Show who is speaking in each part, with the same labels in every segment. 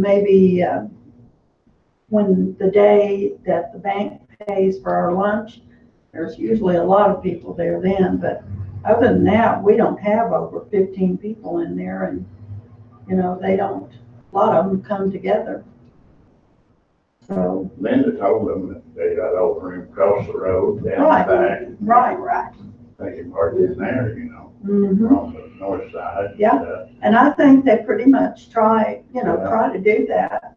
Speaker 1: maybe uh, when the day that the bank pays for our lunch, there's usually a lot of people there then, but other than that, we don't have over fifteen people in there and, you know, they don't, a lot of them come together. So,
Speaker 2: Linda told them that they got old room across the road down
Speaker 1: Right.
Speaker 2: the back.
Speaker 1: right, right.
Speaker 2: They can park in there, you know,
Speaker 1: Mhm.
Speaker 2: on the north side.
Speaker 1: Yeah.
Speaker 2: Uh,
Speaker 1: And I think they pretty much try, you know,
Speaker 2: Yeah.
Speaker 1: try to do that.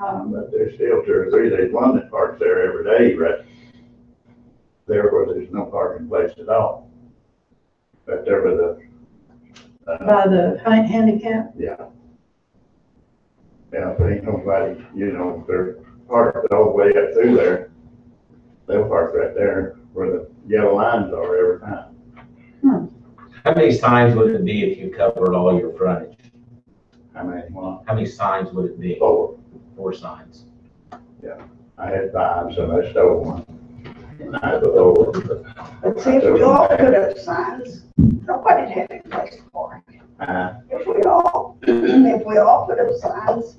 Speaker 1: Um,
Speaker 2: But there's still two or three, there's one that parks there every day, right? There where there's no parking place at all. But there was a, uh,
Speaker 1: by the ha- handicap,
Speaker 2: yeah. Yeah, there ain't nobody, you know, if they're parked all the way up through there. They'll park right there where the yellow lines are every time.
Speaker 3: How many signs would it be if you covered all your frontage?
Speaker 2: I made one,
Speaker 3: How many signs would it be?
Speaker 2: four,
Speaker 3: Four signs.
Speaker 2: I had five, so I stole one. And I had the lower.
Speaker 4: But see, if we all put up signs, nobody'd have any place for it.
Speaker 2: Uh,
Speaker 4: If we all, if we all put up signs,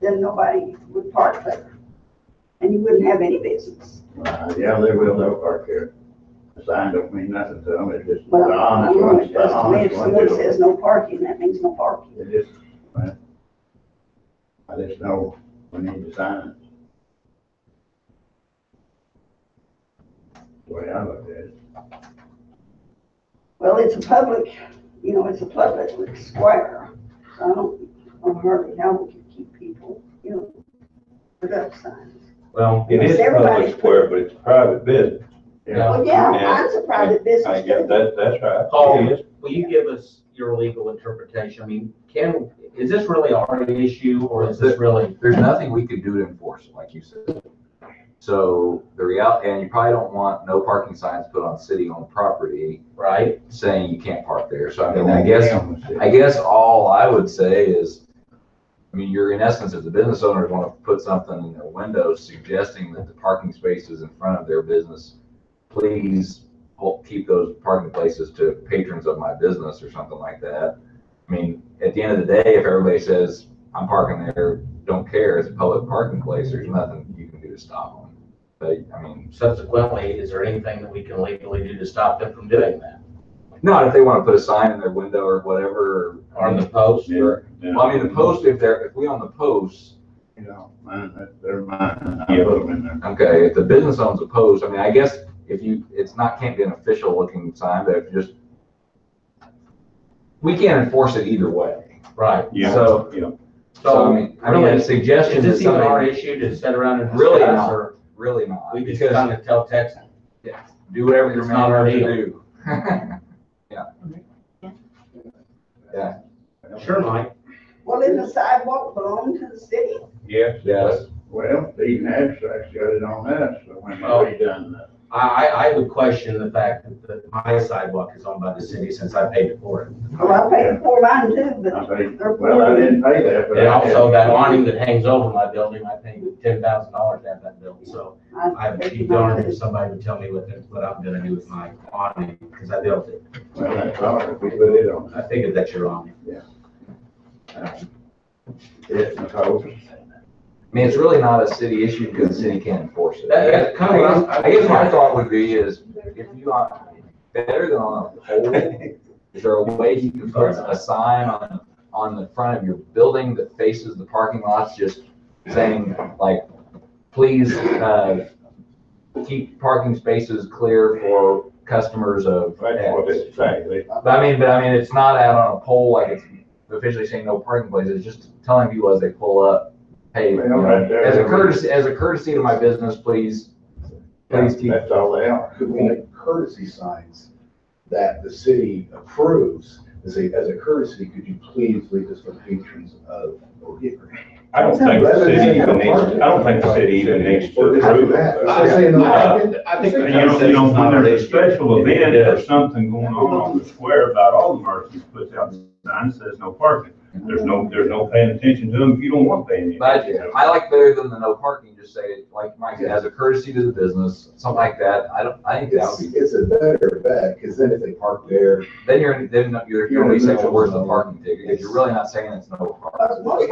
Speaker 4: then nobody would park there. And you wouldn't have any business.
Speaker 2: uh, yeah, they will, they'll park here. The sign don't mean nothing to them, it's just the
Speaker 4: Well, I'm
Speaker 2: honest
Speaker 4: only
Speaker 2: ones, the
Speaker 4: just, I mean,
Speaker 2: honest
Speaker 4: if
Speaker 2: ones.
Speaker 4: someone
Speaker 2: do it.
Speaker 4: says no parking, that means no parking.
Speaker 2: It just, well, I just know we need to sign it. The way I look at it,
Speaker 4: Well, it's a public, you know, it's a public square, so I don't, I'm hardly how we could keep people, you know, put up signs.
Speaker 3: Well,
Speaker 5: It is
Speaker 4: Everybody-
Speaker 5: public square, but it's private business.
Speaker 2: yeah,
Speaker 4: Well, yeah,
Speaker 5: Yeah.
Speaker 4: mine's a private
Speaker 5: I
Speaker 4: business
Speaker 5: guess
Speaker 4: too.
Speaker 5: that, that's right.
Speaker 3: Paul,
Speaker 5: It is.
Speaker 3: will you give us your legal interpretation? I mean, can, is this really our issue or is this really?
Speaker 6: there's nothing we could do to enforce it, like you said. So the reality, and you probably don't want no parking signs put on city-owned property
Speaker 3: Right?
Speaker 6: saying you can't park there. So I
Speaker 2: They
Speaker 6: mean, I
Speaker 2: won't
Speaker 6: guess,
Speaker 2: be able to.
Speaker 6: I guess all I would say is, I mean, you're in essence, if the business owners want to put something in their windows suggesting that the parking spaces in front of their business, please hold- keep those parking places to patrons of my business or something like that. I mean, at the end of the day, if everybody says, I'm parking there, don't care, it's a public parking place, there's nothing you can do to stop them. But, I mean,
Speaker 3: Subsequently, is there anything that we can legally do to stop them from doing that?
Speaker 6: not if they want to put a sign in their window or whatever.
Speaker 3: On the post
Speaker 2: Yeah,
Speaker 3: or?
Speaker 2: yeah.
Speaker 6: Well, I mean, the post, if they're, if we own the posts,
Speaker 2: You know, mine, that- they're mine, I put them in there.
Speaker 6: okay, if the business owns a post, I mean, I guess if you, it's not, can't be an official looking sign, but if you just, we can't enforce it either way.
Speaker 3: Right.
Speaker 6: So-
Speaker 5: yeah.
Speaker 6: So, I
Speaker 3: So
Speaker 6: mean, I mean, a
Speaker 3: is
Speaker 6: suggestion that
Speaker 3: this even our
Speaker 6: somebody,
Speaker 3: issue to sit around and
Speaker 6: Really
Speaker 3: discuss
Speaker 6: not.
Speaker 3: or
Speaker 6: really not,
Speaker 3: we just
Speaker 6: because
Speaker 3: kind of tell Texas?
Speaker 6: do whatever you're
Speaker 3: It's not our
Speaker 6: mandated to
Speaker 3: deal.
Speaker 6: do. Yeah. Yeah,
Speaker 3: Sure, Mike.
Speaker 4: Well, in the sidewalk belong to the city?
Speaker 5: Yes.
Speaker 6: yes,
Speaker 2: Well, even abstracts got it on that, so when
Speaker 3: Oh.
Speaker 2: we done that.
Speaker 3: I, I, I would question the fact that the- my sidewalk is owned by the city since I paid for it.
Speaker 4: Well, I paid for mine too,
Speaker 2: I
Speaker 4: but
Speaker 2: paid, well, I didn't pay that, but.
Speaker 3: And
Speaker 2: I had-
Speaker 3: also that awning that hangs over my building, I paid ten thousand dollars to have that built, so I would be darned if somebody would tell me what, the- what I'm gonna do with my awning, because I built it.
Speaker 2: Well, that's all, right. we put it on,
Speaker 3: I figured that's your awning.
Speaker 2: it's the post.
Speaker 6: I mean, it's really not a city issue because the city can't enforce it.
Speaker 3: That- that's kind of what I'm-
Speaker 6: I guess my thought would be is, if you are better than on a pole, is there a way you can put a sign on, on the front of your building that faces the parking lots, just saying like, please, uh, keep parking spaces clear for customers of
Speaker 2: That's what
Speaker 6: X.
Speaker 2: it say, they,
Speaker 6: But I mean, but I mean, it's not out on a pole, like it's officially saying no parking places, it's just telling people as they pull up, hey, you
Speaker 2: Well,
Speaker 6: know,
Speaker 2: right there.
Speaker 6: as a courtesy, as a courtesy to my business, please, please keep.
Speaker 2: that's all they are.
Speaker 7: could we make courtesy signs that the city approves, and say, as a courtesy, could you please leave this for patrons of O'Hare?
Speaker 5: I don't think the city even needs, I don't think the city even needs to approve
Speaker 7: I
Speaker 5: that.
Speaker 7: say no
Speaker 5: Uh,
Speaker 7: parking.
Speaker 3: I
Speaker 5: You know, you know, when there's a special event or something going on on the square, about all the merchants puts out the sign that says no parking. There's no, there's no paying attention to them, you don't want paying attention.
Speaker 6: But I like better than the no parking, just say, like Mike said, as a courtesy to the business, something like that, I don't, I think that
Speaker 7: It's,
Speaker 6: would be,
Speaker 7: it's a better bet, because then if they park there,
Speaker 6: then you're, then you're, you're only saying, well, where's the parking ticket, because you're really not saying it's no parking.
Speaker 4: most